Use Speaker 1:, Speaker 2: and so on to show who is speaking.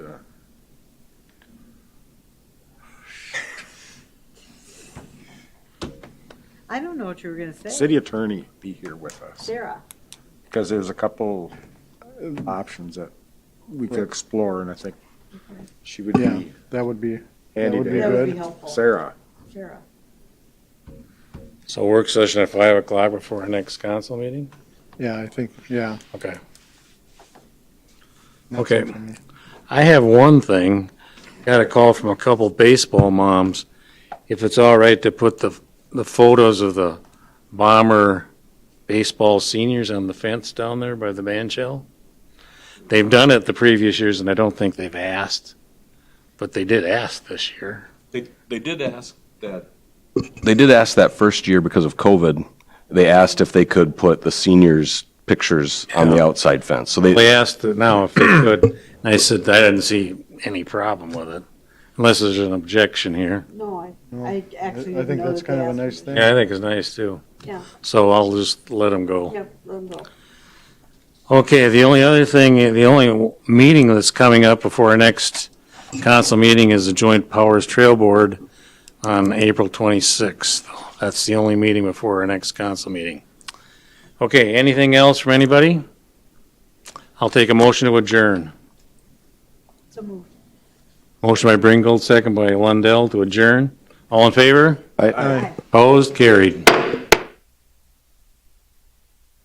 Speaker 1: I don't know what you were going to say.
Speaker 2: City attorney be here with us,
Speaker 1: Sarah,
Speaker 2: because there's a couple options that we could explore, and I think she would
Speaker 3: Yeah,
Speaker 2: be
Speaker 3: that would be, that
Speaker 2: handy
Speaker 3: would be
Speaker 1: That would be
Speaker 3: good.
Speaker 1: helpful.
Speaker 2: Sarah,
Speaker 1: Sarah.
Speaker 4: So work session at five o'clock before our next council meeting?
Speaker 3: Yeah, I think, yeah.
Speaker 4: Okay.
Speaker 3: that's
Speaker 4: Okay.
Speaker 3: it for me.
Speaker 4: I have one thing. Got a call from a couple baseball moms. If it's all right to put the, the photos of the bomber baseball seniors on the fence down there by the band shell. They've done it the previous years and I don't think they've asked, but they did ask this year.
Speaker 5: They, they did ask that. They did ask that first year because of COVID. They asked if they could put the seniors' pictures on the outside fence. So they,
Speaker 4: They asked it now if they could. And I said, I didn't see any problem with it, unless there's an objection here.
Speaker 1: No, I,
Speaker 3: No,
Speaker 1: I actually
Speaker 3: I
Speaker 1: didn't
Speaker 3: think
Speaker 1: know
Speaker 3: that's
Speaker 1: that they
Speaker 3: kind of a
Speaker 1: asked.
Speaker 3: nice thing.
Speaker 4: Yeah, I think it's nice too.
Speaker 1: Yeah.
Speaker 4: So I'll just let them go.
Speaker 1: Yep, let 'em go.
Speaker 4: Okay, the only other thing, the only meeting that's coming up before our next council meeting is the Joint Powers Trail Board on April 26th. That's the only meeting before our next council meeting. Okay, anything else from anybody? I'll take a motion to adjourn.
Speaker 1: So moved.
Speaker 4: Motion by Bringold, second by Lundell to adjourn. All in favor?
Speaker 5: I,
Speaker 3: Aye.
Speaker 4: Opposed? Carried.